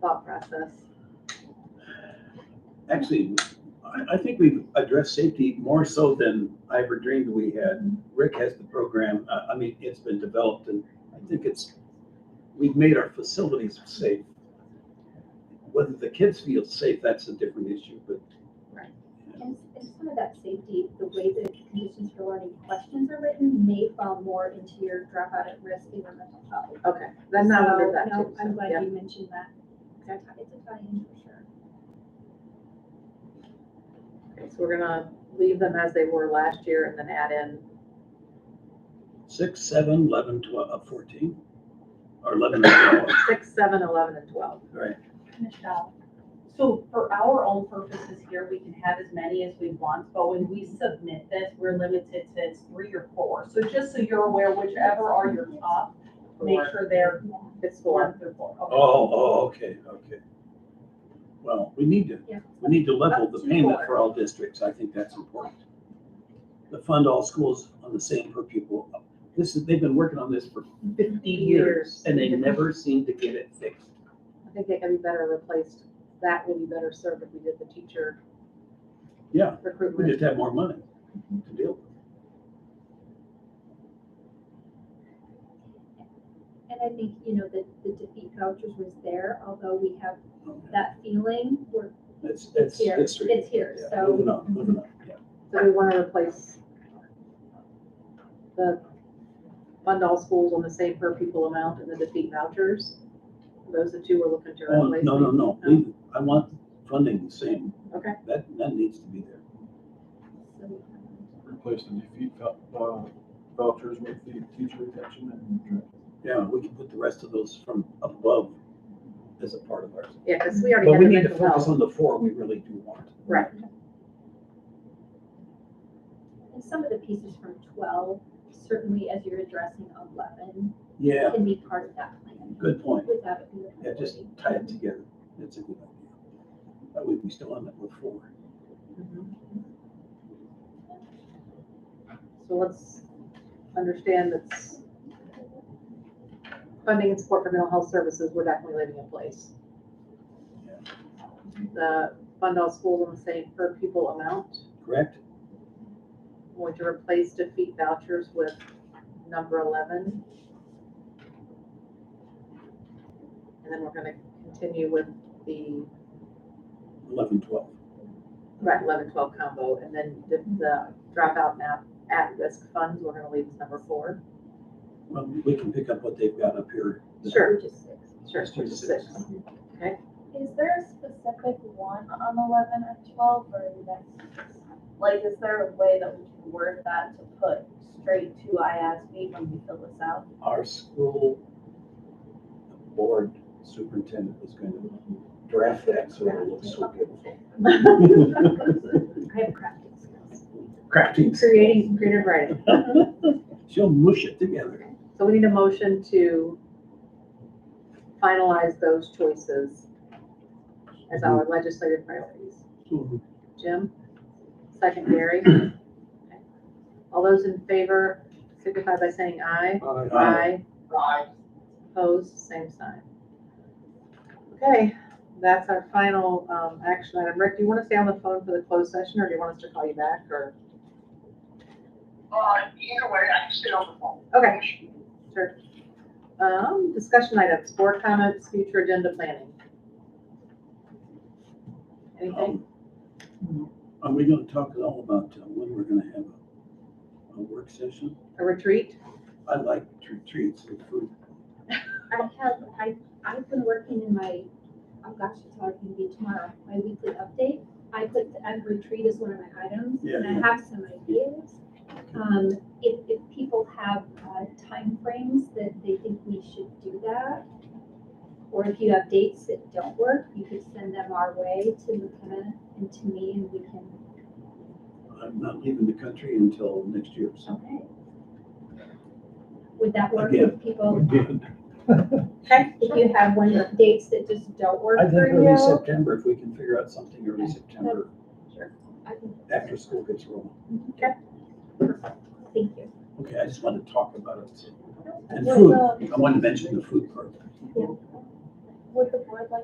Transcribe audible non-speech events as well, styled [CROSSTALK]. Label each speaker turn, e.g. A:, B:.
A: thought process.
B: Actually, I, I think we've addressed safety more so than I ever dreamed we had. Rick has the program, uh, I mean, it's been developed and I think it's, we've made our facilities safe. Whether the kids feel safe, that's a different issue, but
C: And, and some of that safety, the way the conditions for learning questions are written may fall more into your dropout at risk in your mental health.
A: Okay, then that
C: So,
A: under that
C: no,
A: too.
C: I'm
A: so, yeah.
C: glad you mentioned that.
A: Okay.
C: It's a tie in for sure.
A: Okay, So we're gonna leave them as they were last year and then add in,
B: six, seven, eleven, twelve, uh, fourteen? Or eleven and twelve,
A: six, seven, eleven, and twelve.
B: right?
D: Michelle, so for our own purposes here, we can have as many as we want, but when we submit this, we're limited to it's three or four. So just so you're aware, whichever are your top, make sure they're
A: It's four.
D: one through four.
B: Oh,
D: Okay.
B: oh, okay, okay. Well, we need to,
C: Yeah.
B: we need to level the
D: Up to
B: payment
D: four.
B: for all districts, I think that's important. To fund all schools on the same per pupil, this is, they've been working on this for fifty years,
A: Years.
B: and they never seem to get it fixed.
A: I think they can be better replaced, that would be better served if we did the teacher
B: Yeah, we
A: recruitment.
B: just have more money to deal with.
C: And I think, you know, the, the defeat vouchers was there, although we have
B: Okay.
C: that feeling, we're,
B: It's, it's,
C: here.
B: it's. true.
C: It's here,
B: Yeah,
C: so-
B: Moving on, moving on, yeah.
A: So we wanna replace the fund all schools on the same per pupil amount and the defeat vouchers. Those are two we're looking to
B: Oh,
A: replace.
B: no, no, no, leave it. I want funding the same.
A: Okay.
B: That, that needs to be there.
C: so,
E: replace the defeat vou- uh, vouchers with the teacher retention and.
B: Yeah, we can put the rest of those from up above as a part of ours.
A: Yeah, because we already
B: But
A: had
B: we
A: the
B: need to
A: mental
B: focus
A: health.
B: on the four we really do want.
A: Right.
C: and some of the pieces from twelve, certainly as you're addressing eleven,
B: Yeah,
C: can be part of that plan
B: good point.
C: without it being.
B: Yeah, just tie it together. That's a good idea. That way we still end up with four.
A: Mhm. So let's understand that's funding and support for mental health services, we're definitely leaving in place. The fund all schools on the same per pupil amount,
B: Correct?
A: We're going to replace defeat vouchers with number eleven. And then we're gonna continue with the
B: Eleven, twelve.
A: Right, eleven, twelve combo, and then the, the dropout map at risk funds, we're gonna leave as number four.
B: Well, we can pick up what they've got up here.
A: Sure.
C: Which is six.
A: Sure,
B: Let's do
A: which is
B: six.
A: six.
F: Is there a specific one on eleven or twelve or that's,
G: Like, is there a way that we can word that to put straight to IASB when we fill this out?
B: Our school board superintendent is going to draft that so it looks
A: [LAUGHS]
B: so beautiful.
C: I have crafting skills.
B: Crafting.
A: Creating creative writing,
B: She'll mush it together.
A: so we need a motion to finalize those choices as our legislative priorities. Jim, second Gary. Okay. All those in favor signify by saying aye.
E: Uh,
A: Aye. Aye. Opposed, same sign. Okay, that's our final um, action item. Rick, do you want to stay on the phone for the closed session, or do you want us to call you back, or?
H: Uh, either way, I can stay on the phone.
A: Okay, sure. Um, Discussion items, board comments, future agenda planning. Anything?
B: Um, Are we gonna talk at all about uh, when we're gonna have a, a work session?
A: A retreat?
B: I like retreats with food.
C: I have, I, I've been working in my, oh gosh, it's hard for me tomorrow, my weekly update. I put, and retreat is one of my items, and
B: Yeah.
C: I have some ideas. Um, if, if people have, uh, timeframes that they think we should do that, or if you have dates that don't work, you could send them our way to McKenna and to me, and we can,
B: I'm not leaving the country until next year, so.
C: okay. Would that work
B: Again.
C: if people, if you have one of the dates that just don't work
B: I think
C: for you?
B: early September, if we can figure out something early September,
C: I can
B: after school gets rolling.
C: Thank you.
B: Okay, I just wanted to talk about it. And
F: Would,
B: food,
F: um,
B: I wanted to mention the food part.
F: would the board like